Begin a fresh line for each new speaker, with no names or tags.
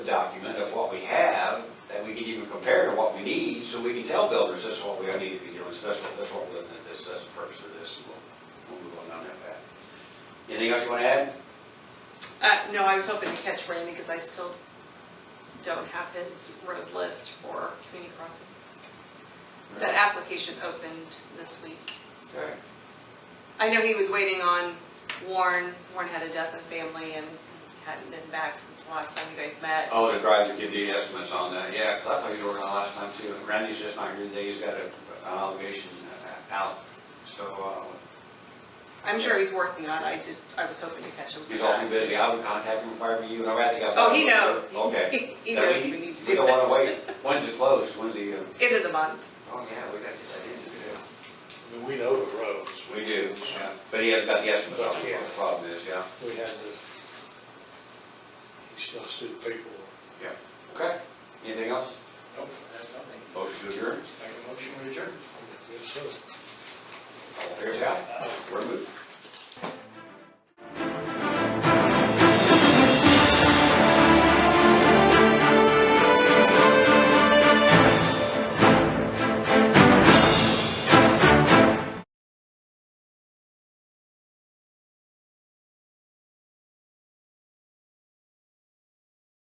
can even compare to what we need, so we can tell builders, this is what we need to be doing, so that's what, that's what we're looking at, this, that's the purpose of this, and we'll, we'll move on down that path. Anything else you want to add?
Uh, no, I was hoping to catch Randy because I still don't have his road list for community crossing. The application opened this week.
Okay.
I know he was waiting on Warren. Warren had a death in family and hadn't been back since the last time you guys met.
Oh, the drive to give the estimates on that, yeah, 'cause I thought you were working on last time too, and Randy's just not here today, he's got a- an obligation uh, out, so, uh,
I'm sure he's working on it. I just, I was hoping to catch him.
he's awfully busy, I would contact him if I were you, and I think I.
Oh, he knows.
Okay.
He- He
Now,
knows we need to do
We don't want to
that.
wait, when's it close, when's the, uh,
End of the month.
oh, yeah, we got to get that in today.
I mean, we know the roads.
We do, yeah. but he hasn't got the estimates on
Yeah.
what the problem is, yeah.
We had the, he still stood paperwork.
Okay, anything else?
Nope, that's nothing.
Motion to adjourn?
Make a motion to adjourn. Yes, sir.
All fair side? We're moved.